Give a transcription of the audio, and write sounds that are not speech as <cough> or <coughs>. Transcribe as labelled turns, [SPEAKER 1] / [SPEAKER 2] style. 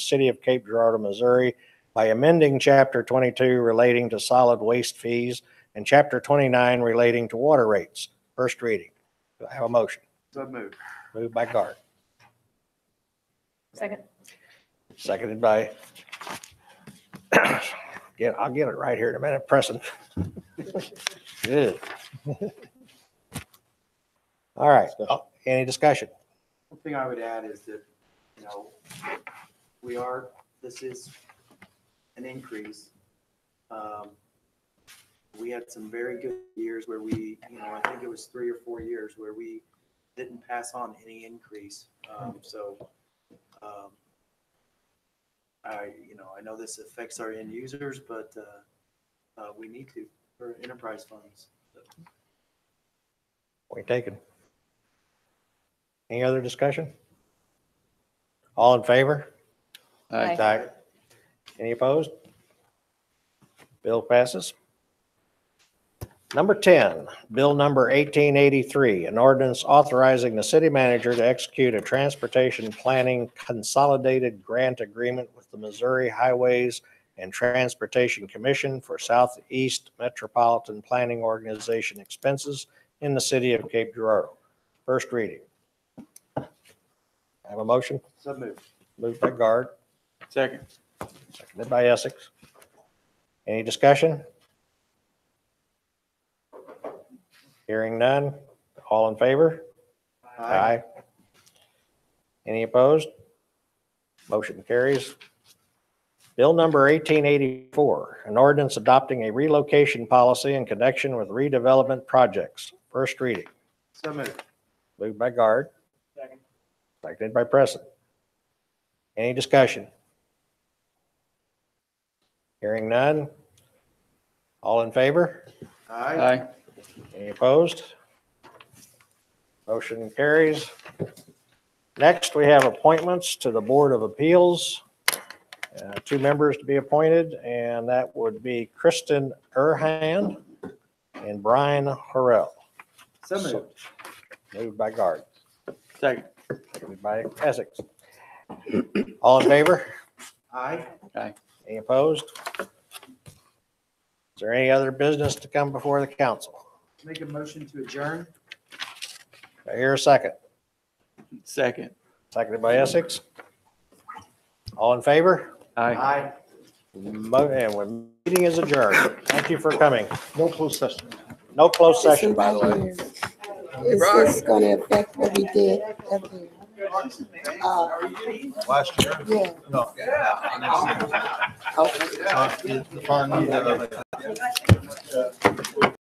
[SPEAKER 1] City of Cape Girardeau, Missouri by amending Chapter 22 relating to solid waste fees and Chapter 29 relating to water rates. First reading. Do I have a motion?
[SPEAKER 2] So moved.
[SPEAKER 1] Moved by Gard,
[SPEAKER 3] Second.
[SPEAKER 1] seconded by, <coughs> yeah, I'll get it right here in a minute, Preston. <laughs> Good. <laughs> All right, uh, any discussion?
[SPEAKER 2] One thing I would add is that, you know, we are, this is an increase. Um, We had some very good years where we, you know, I think it was three or four years where we didn't pass on any increase. Um, So, um, I, you know, I know this affects our end users, but uh, uh, we need to for enterprise funds.
[SPEAKER 1] Point taken. Any other discussion? All in favor?
[SPEAKER 3] Aye.
[SPEAKER 1] Any opposed? Bill passes. Number 10, Bill Number 1883, an ordinance authorizing the city manager to execute a transportation planning consolidated grant agreement with the Missouri Highways and Transportation Commission for Southeast Metropolitan Planning Organization expenses in the city of Cape Girardeau. First reading. Have a motion?
[SPEAKER 2] So moved.
[SPEAKER 1] Moved by Guard,
[SPEAKER 2] Second.
[SPEAKER 1] seconded by Essex. Any discussion? Hearing none. All in favor? Any opposed? Motion carries. Bill number 1884, an ordinance adopting a relocation policy in connection with redevelopment projects. First reading.
[SPEAKER 2] So moved.
[SPEAKER 1] Moved by Guard.
[SPEAKER 2] Second.
[SPEAKER 1] Seconded by Preston. Any discussion? Hearing none. All in favor?
[SPEAKER 2] Aye.
[SPEAKER 1] Any opposed? Motion carries. Next, we have appointments to the Board of Appeals. Uh, Two members to be appointed, and that would be Kristen Erhan and Brian Harrell.
[SPEAKER 2] So moved.
[SPEAKER 1] Moved by Guard,
[SPEAKER 4] Second.
[SPEAKER 1] seconded by Essex. All in favor?
[SPEAKER 2] Aye.
[SPEAKER 1] Any opposed? Is there any other business to come before the council?
[SPEAKER 2] Make a motion to adjourn.
[SPEAKER 1] Do I hear a second?
[SPEAKER 4] Second.
[SPEAKER 1] Seconded by Essex. All in favor?
[SPEAKER 4] Aye.
[SPEAKER 2] Aye.
[SPEAKER 1] Mo- And when meeting is adjourned. Thank you for coming.
[SPEAKER 5] No closed session.
[SPEAKER 1] No closed session, by the way.
[SPEAKER 6] Is this gonna affect what we did up here? Uh,
[SPEAKER 5] Last year,
[SPEAKER 6] yeah,
[SPEAKER 5] no.
[SPEAKER 6] okay.
[SPEAKER 5] Uh, The fund, uh,